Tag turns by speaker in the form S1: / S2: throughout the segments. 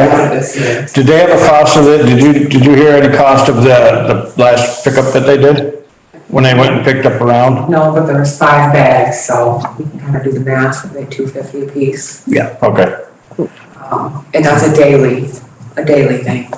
S1: this year.
S2: Did they have a cost of it? Did you, did you hear any cost of the, the last pickup that they did? When they went and picked up around?
S1: No, but there was five bags, so we can kind of do the math, like two fifty a piece.
S2: Yeah. Okay.
S1: Um, and that's a daily, a daily thing.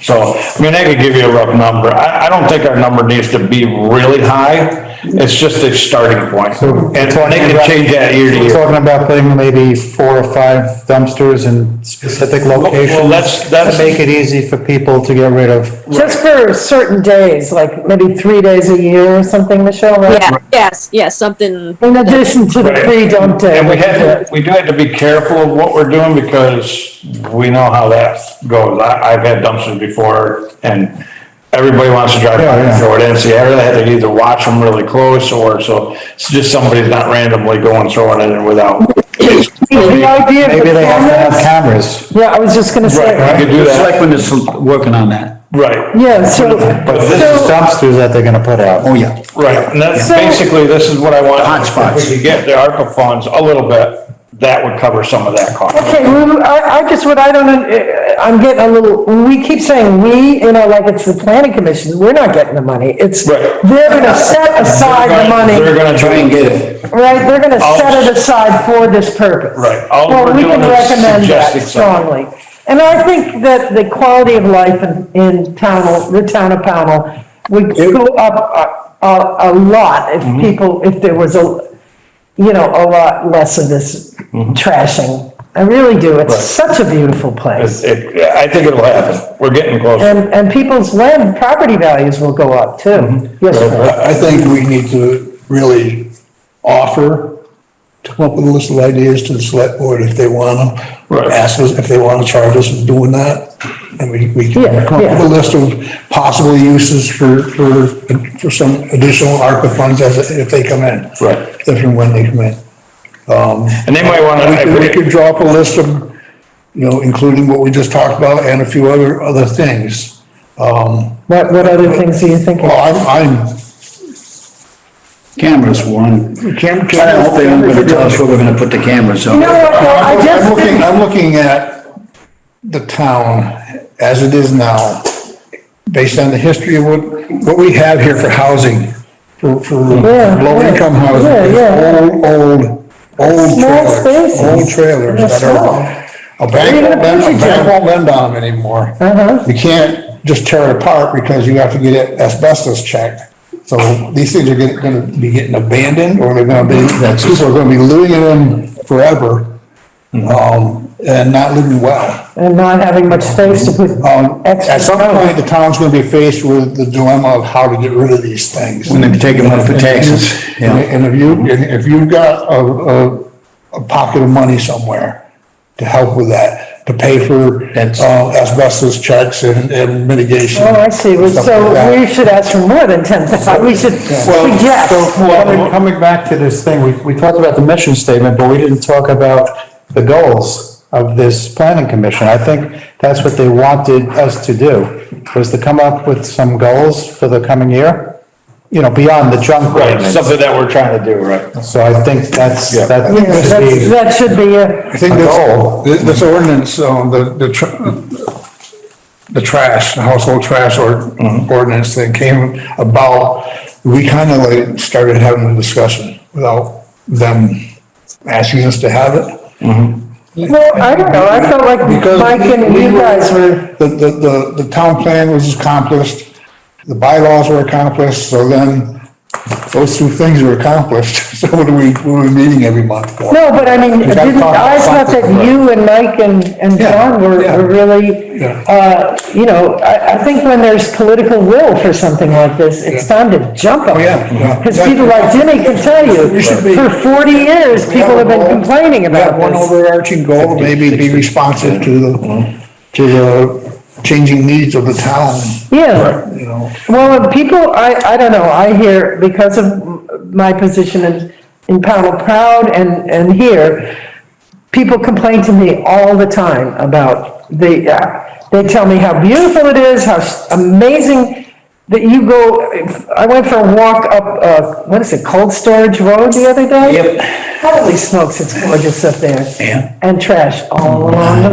S2: So, I mean, I could give you a rough number. I, I don't think our number needs to be really high. It's just a starting point.
S3: So-
S2: And they can change that year to
S3: We're
S2: year.
S3: talking about putting maybe four or five dumpsters in specific
S2: Well,
S3: locations
S2: that's,
S3: to
S2: that's,
S3: make it easy for people to get rid of.
S4: Just for certain days, like maybe three days a year or something, Michelle, right?
S5: Yeah, yes, yes, something,
S4: In addition to the free dump day.
S2: and we had, to- we do have to be careful of what we're doing because we know how that goes. I, I've had dumpsters before and everybody wants to drive by and throw it in, so you really had to either watch them really close or so, it's just somebody's not randomly going throwing it in without.
S4: The idea of
S3: Maybe
S4: the
S3: they have to have
S4: cameras-
S3: cameers.
S4: Yeah, I was just gonna
S2: Right,
S4: say,
S2: we could do
S6: The
S2: that,
S6: selectmen is working on that.
S2: right,
S4: yeah, so.
S2: But this is
S4: so-
S3: Dumpsters that they're gonna put out.
S6: Oh, yeah.
S2: right. And that's
S4: So-
S2: basically, this is what I want.
S6: Hotspots.
S2: If we could get the ARPA funds a little bit, that would cover some of that cost.
S4: Okay, well, I, I just, what I don't, un- eh, I'm getting a little, we keep saying we, you know, like it's the planning commission, we're not getting the money. It's,
S2: Right.
S4: they're gonna set aside the
S2: They're
S4: money,
S2: gonna try and get it.
S4: right? They're gonna
S2: All-
S4: set it aside for this purpose.
S2: Right, all
S4: Well,
S2: we're
S4: we can
S2: doing is
S4: recommend that
S2: suggesting something.
S4: strongly. And I think that the quality of life in, in Pownell, the town of Pownell would go up a, a, a lot
S2: Mm-hmm.
S4: if people, if there was a, you know, a lot less of this
S2: Mm-hmm.
S4: trashing. I really do. It's such a beautiful place.
S2: It's- it- I think it'll happen. We're getting close.
S4: And, and people's land, property values will go up too.
S2: Mm-hmm.
S4: Yes, sir.
S7: I I think we need to really offer, to come up with a list of ideas to the select board if they want to.
S2: Right.
S7: Ask us if they want to charge us with doing that. And we, we can
S4: Yeah,
S7: come up with
S4: yeah.
S7: a list of possible uses for, for, for some additional ARPA funds as, if they come in.
S2: Right.
S7: If and when they come in.
S2: And they might want
S7: We could, we
S2: to,
S7: could draw up a list of, you know, including what we just talked about and a few other, other things.
S4: What, what other things are you thinking?
S7: Well, I'm, I'm,
S6: Cameras, one.
S7: Cam, Cam.
S6: I hope they aren't gonna tell us where we're gonna put the cameras, so.
S4: You know what, though, I
S7: I'm
S4: just
S7: looking,
S4: think,
S7: I'm looking at the town as it is now, based on the history of what, what we have here for housing, for, for
S4: Yeah,
S7: low-income
S4: yeah, yeah,
S7: housing,
S4: yeah.
S7: old, old, old
S4: Small
S7: trailers,
S4: spaces.
S7: old trailers
S4: They're
S7: that are, a bank
S4: Even
S7: won't
S4: a
S7: lend, a
S4: picture
S7: bank
S4: job.
S7: won't lend on them anymore.
S4: Uh-huh.
S7: You can't just tear it apart because you have to get it asbestos checked. So these things are gonna, gonna be getting abandoned or they're gonna be, people are gonna be living in them forever. Um, and not living well.
S4: and not having much space to put
S7: Um,
S4: extra.
S7: at some
S4: stuff.
S7: point, the town's gonna be faced with the dilemma of how to get rid of these things.
S6: When they take them up for taxes, yeah.
S7: And if you, and if you've got a, a, a pocket of money somewhere to help with that, to pay for,
S6: That's-
S7: uh, asbestos checks and, and mitigation.
S4: Oh, I see,
S7: and stuff like that.
S4: so we should ask for more than ten thousand, we should
S3: So,
S4: suggest.
S3: coming, coming back to this thing, we, we talked about the mission statement, but we didn't talk about the goals of this planning commission. I think that's what they wanted us to do, was to come up with some goals for the coming year, you know, beyond the junk.
S2: right,
S3: ordinance.
S2: something that we're trying to do, right?
S3: So I think that's,
S2: Yeah.
S3: that
S4: Yes,
S3: should
S4: that's,
S3: be
S4: that should be a,
S7: I think
S3: goal.
S7: this, this ordinance, um, the, the, tr- the trash, the household trash or ordinance that came about, we kind of like started having a discussion without them asking us to have it.
S4: well, I don't know, I felt like
S7: Because
S4: Mike and
S7: we
S4: you guys were,
S7: The, the, the, the town plan was accomplished, the bylaws were accomplished, so then those two things were accomplished. So what are we, what are we meeting every month for?
S4: no, but I mean,
S7: gotta
S4: didn't,
S7: talk
S4: I
S7: about
S4: thought that
S7: something, right.
S4: you and Mike and, and
S7: Yeah,
S4: John were,
S7: yeah.
S4: were really,
S7: Yeah.
S4: uh, you know, I, I think when there's political will for something like this, it's time to jump on
S7: Oh, yeah, yeah.
S4: it. Because people like Jimmy can tell you,
S7: You should be-
S4: for forty years, people have been complaining
S7: We have
S4: about
S7: one
S4: this.
S7: overarching goal, maybe be responsive to the, to the changing needs of the town,
S4: Yeah.
S7: you know.
S4: Well, and people, I, I don't know, I hear, because of my position in, in Pownell Proud and, and here, people complain to me all the time about the, uh, they tell me how beautiful it is, how s- amazing that you go, I went for a walk up, uh, what is it, Cold Storage Road the other day?
S6: Yep.
S4: Holy smokes, it's gorgeous up there.
S6: Yeah.
S4: And trash all along the